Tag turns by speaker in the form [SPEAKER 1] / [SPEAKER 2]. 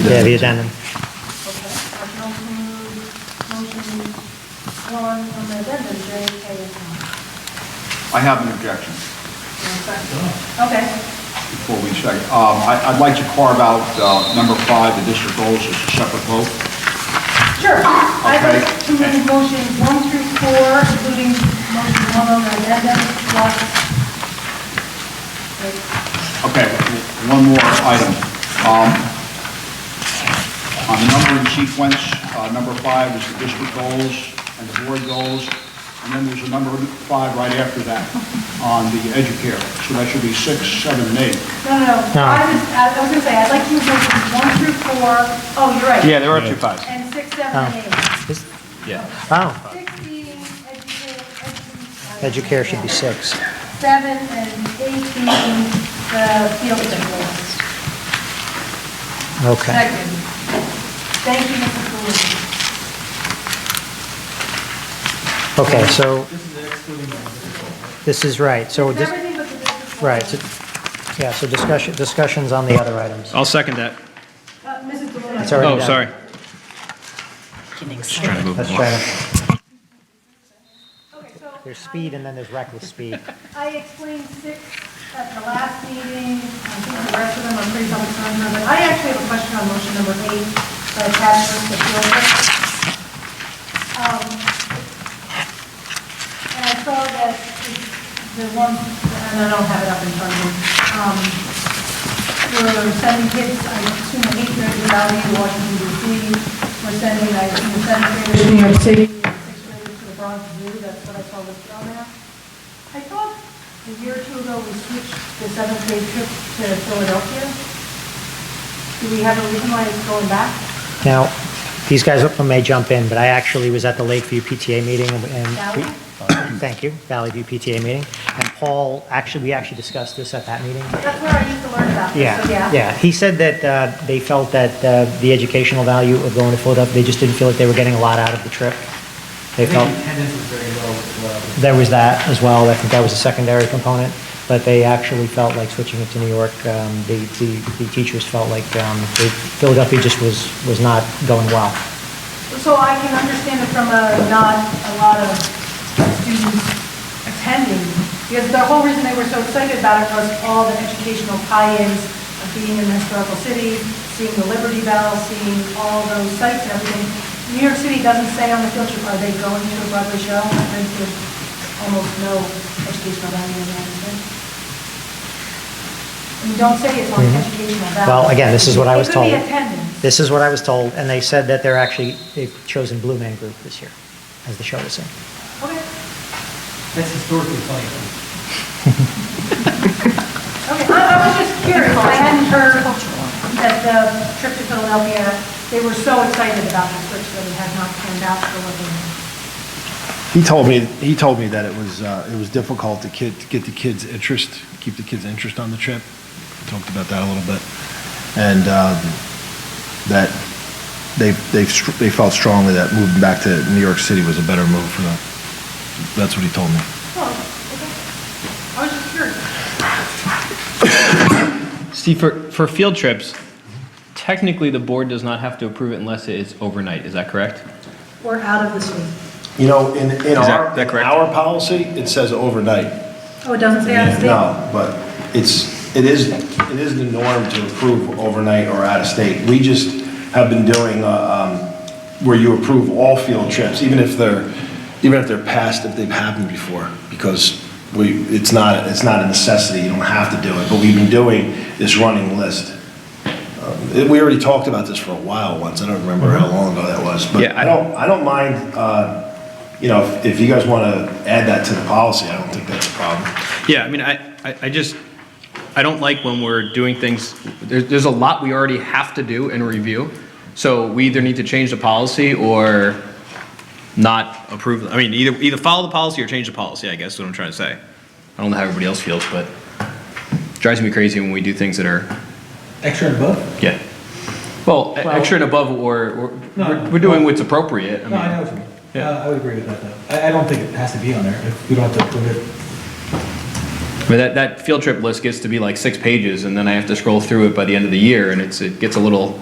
[SPEAKER 1] Yeah, the addendum.
[SPEAKER 2] Okay, I can also move motion one from the addendum, J, K, and L.
[SPEAKER 3] I have an objection
[SPEAKER 2] And second. Okay,
[SPEAKER 3] before we check. Um, I- I'd like to carve out uh, number five, the district goals, as a separate vote.
[SPEAKER 2] sure. I'd
[SPEAKER 3] Okay.
[SPEAKER 2] like to move motion one through four, including motion one on the addendum, plus.
[SPEAKER 3] Okay, one more item. Um, On the numbering sequence, uh, number five is the district goals and the board goals, and then there's a number five right after that on the educare. So that should be six, seven, and eight.
[SPEAKER 2] No, no, no,
[SPEAKER 1] No.
[SPEAKER 2] I was, I was gonna say, I'd like to move motion one through four, oh, you're right.
[SPEAKER 3] there are two fives.
[SPEAKER 2] And six, seven,
[SPEAKER 1] Oh.
[SPEAKER 2] and eight.
[SPEAKER 1] Is-
[SPEAKER 3] Yeah.
[SPEAKER 1] Oh,
[SPEAKER 2] Sixteen, educate, educate.
[SPEAKER 1] Educare should be six.
[SPEAKER 2] Seven and eighteen, the field goals.
[SPEAKER 1] Okay.
[SPEAKER 2] Second. Thank you, Mr. Cooley.
[SPEAKER 1] Okay, so. This is right, so this,
[SPEAKER 2] Everything but the district.
[SPEAKER 1] right, so- yeah, so discussion, discussions on the other items.
[SPEAKER 4] I'll second that.
[SPEAKER 2] Uh, Mrs. Deloy.
[SPEAKER 1] It's already
[SPEAKER 4] Oh,
[SPEAKER 1] done.
[SPEAKER 4] sorry.
[SPEAKER 1] Let's try to,
[SPEAKER 2] Okay, so
[SPEAKER 1] there's speed and then there's reckless speed.
[SPEAKER 2] I explained six at the last meeting. I think the rest of them are pretty public comment, but I actually have a question on motion number eight, the attachment to field goals. Um, And I saw that the one, and I don't have it up in front of me, um, We're sending kids, I assume, eighth grade Valley, Washington DC. We're sending, I assume, seventh graders to New York City, and sixth graders to the Bronx Zoo, that's what I saw listed on there. I thought a year or two ago, we switched the seventh grade trip to Philadelphia. Do we have a reason why it's going back?
[SPEAKER 1] Now, these guys may jump in, but I actually was at the Lakeview PTA meeting and- and,
[SPEAKER 2] Valley?
[SPEAKER 1] thank you, Valley View PTA meeting. And Paul, actually, we actually discussed this at that meeting.
[SPEAKER 2] That's where I used to learn about this, so
[SPEAKER 1] Yeah,
[SPEAKER 2] yeah.
[SPEAKER 1] yeah. He said that uh, they felt that uh, the educational value of going to Philadelphia, they just didn't feel like they were getting a lot out of the trip. They
[SPEAKER 5] I think
[SPEAKER 1] felt,
[SPEAKER 5] attendance was very low as well.
[SPEAKER 1] there was that as well, I think that was a secondary component, but they actually felt like switching it to New York, um, the, the the teachers felt like um, they- Philadelphia just was, was not going well.
[SPEAKER 2] So I can understand it from a, not a lot of students attending, because the whole reason they were so excited about it was all the educational tie-ins of being in the historical city, seeing the Liberty Bell, seeing all those sites, and everything. New York City doesn't say on the field trip, are they going to a Broadway show? I think there's almost no educational value in that, is there? And don't say it's on educational value.
[SPEAKER 1] Mm-hmm. Well, again, this is what I was told.
[SPEAKER 2] It could be attendance.
[SPEAKER 1] This is what I was told, and they said that they're actually, they've chosen Blue Man Group this year as the show to sing.
[SPEAKER 2] Okay,
[SPEAKER 5] That's historically funny.
[SPEAKER 2] Okay, I I was just curious, I hadn't heard that the trip to Philadelphia, they were so excited about the switch that it had not panned out for what they
[SPEAKER 6] He told me, he told me that it was, uh, it was difficult to kid, to get the kids' interest, keep the kids' interest on the trip. We Talked about that a little bit. And, um, that they, they, str- they felt strongly that moving back to New York City was a better move for them. That's what he told me.
[SPEAKER 2] Oh, okay. I was just curious.
[SPEAKER 4] See, for, for field trips, technically, the board does not have to approve it unless it is overnight, is that correct?
[SPEAKER 2] We're out of the city.
[SPEAKER 6] You know, in, in
[SPEAKER 4] that-
[SPEAKER 6] our,
[SPEAKER 4] that
[SPEAKER 6] in
[SPEAKER 4] correct?
[SPEAKER 6] our policy, it says overnight.
[SPEAKER 2] Oh, it doesn't say out of state?
[SPEAKER 6] No, but it's, it is, it is the norm to approve overnight or out of state. We just have been doing, uh, um, where you approve all field trips, even if they're, even if they're past, if they've happened before, because we, it's not, it's not a necessity, you don't have to do it, but we've been doing this running list. Um, We already talked about this for a while once, I don't remember how long ago that was, but
[SPEAKER 4] Yeah, I-
[SPEAKER 6] I don't, I don't mind, uh, you know, if- if you guys want to add that to the policy, I don't think that's a problem.
[SPEAKER 4] Yeah, I mean, I, I- I just, I don't like when we're doing things, there's, there's a lot we already have to do and review. So we either need to change the policy or not approve, I mean, either, either follow the policy or change the policy, I guess is what I'm trying to say. I don't know how everybody else feels, but drives me crazy when we do things that are
[SPEAKER 5] Extra and above?
[SPEAKER 4] Yeah. Well, e- extra and above, or, or,
[SPEAKER 5] No,
[SPEAKER 4] we're-
[SPEAKER 5] no.
[SPEAKER 4] we're doing what's appropriate. I
[SPEAKER 5] No, I know
[SPEAKER 4] mean,
[SPEAKER 5] what you mean.
[SPEAKER 4] Yeah.
[SPEAKER 5] Uh, I would agree with that, though. I, I don't think it has to be on there if we don't have to approve
[SPEAKER 4] I
[SPEAKER 5] it.
[SPEAKER 4] mean, that, that field trip list gets to be like six pages, and then I have to scroll through it by the end of the year, and it's, it gets a little